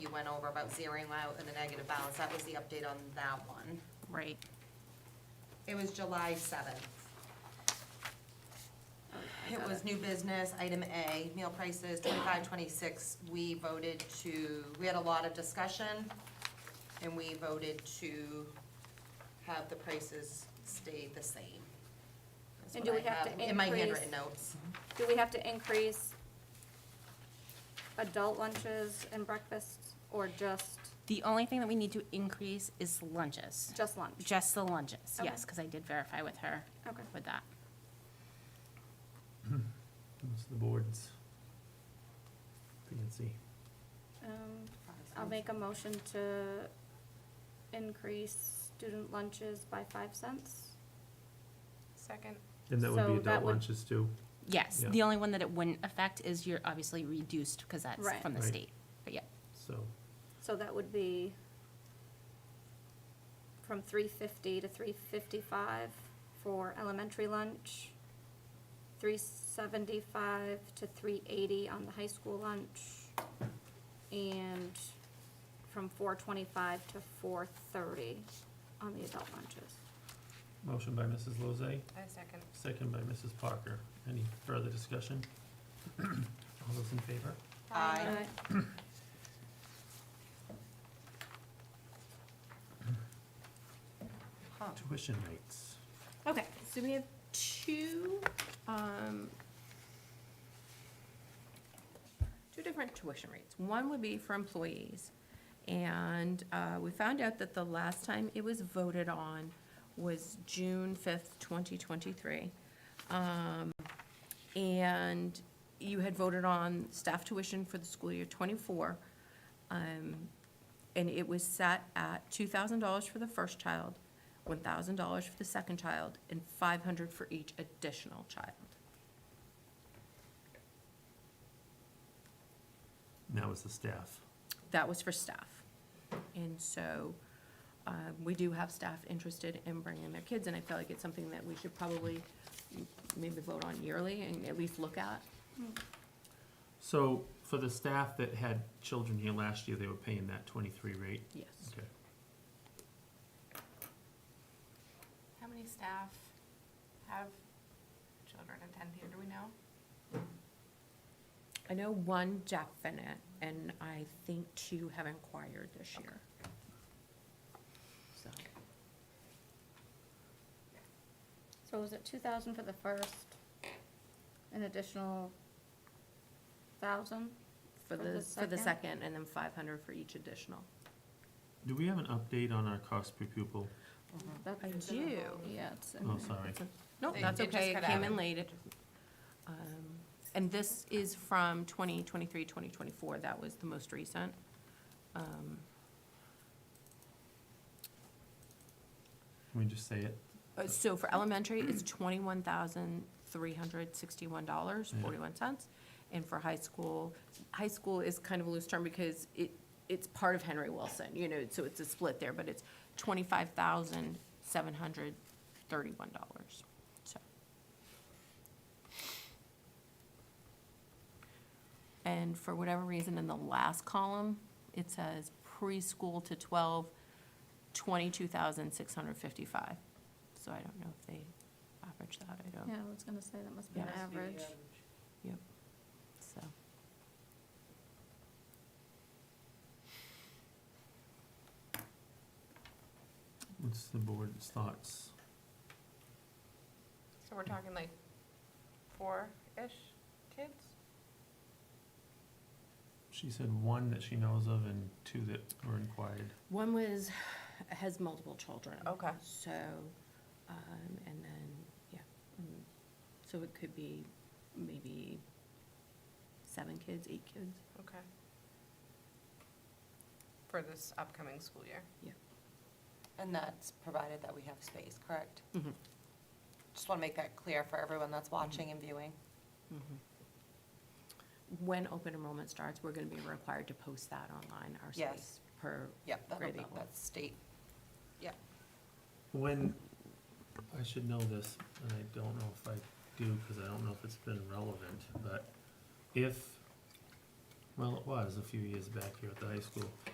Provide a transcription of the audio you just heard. went over about zeroing out in the negative balance. That was the update on that one. Right. It was July seventh. It was new business, item A, meal prices, twenty-five, twenty-six. We voted to, we had a lot of discussion, and we voted to have the prices stay the same. That's And what do we I have to In my increase- handwritten notes. Do we have to increase adult lunches and breakfasts, or just, The only thing that we need to increase is lunches, just lunch? just the lunches, Okay. yes, because I did verify with her Okay. with that. It's the board's fancy. Um, I'll make a motion to increase student lunches by five cents. Second. And that would So be that adult would- lunches too. Yes, Yeah. the only one that it wouldn't affect is you're obviously reduced, because that's Right. from the Right. state, but yeah, So So that would be from three fifty to three fifty-five for elementary lunch, three seventy-five to three eighty on the high school lunch, and from four twenty-five to four thirty on the adult lunches. motion by Mrs. Lozay, I second. second by Mrs. Parker. Any further discussion? All those in favor? Aye. Tuition rates. Uh, Okay, so we have two, um, two different tuition rates. One would be for employees. And, uh, we found out that the last time it was voted on was June fifth, twenty twenty-three. Um, and you had voted on staff tuition for the school year twenty-four. Um, and it was set at two thousand dollars for the first child, one thousand dollars for the second child, and five hundred for each additional child. Now is the staff. That was for staff. And so, um, we do have staff interested in bringing their kids, and I feel like it's something that we should probably m- maybe vote on yearly and at least look at. So for the staff that had children here last year, they were paying that twenty-three rate? Yes. Okay. How many staff have children attend here, do we know? I know one Jack Bennett, and I think two have inquired this year. So, So was it two thousand for the first, an additional thousand? for the, for the second, and then five hundred for each additional. Do we have an update on our cost per pupil? That's I in the do, whole- yeah, it's. in Oh, there. Mm-hmm. sorry. It's a- No, They- that's they just okay, it cut came out. in late. It- um, And this is from 2023, 2024, that was the most recent. Um, Can we just say it? uh, So for elementary, it's $21,361.41. And for high school, high school is kind of a loose term because it, it's part of Henry Wilson, you know, so it's a split there, but it's $25,731. So. And for whatever reason, in the last column, it says preschool to 12, 22,655. So I don't know if they average that, I don't, Yeah, I was gonna say that must be Yeah. an average. so. What's the board's thoughts? So we're talking like four-ish kids? She said one that she knows of and two that were inquired. One was, has multiple children. Oh, Okay. So, um, and then, yeah, mm, so it could be maybe seven kids, eight kids. Okay. For this upcoming school year? And that's provided that we have space, correct? Mhm. Just want to make that clear for everyone that's watching and viewing. When open enrollment starts, we're gonna be required to post that online, our Yes. space per, Yep, that'll Grade be, level. that's state. Yep. When, I should know this, and I don't know if I do, because I don't know if it's been relevant, but if Well, it was a few years back here at the high school.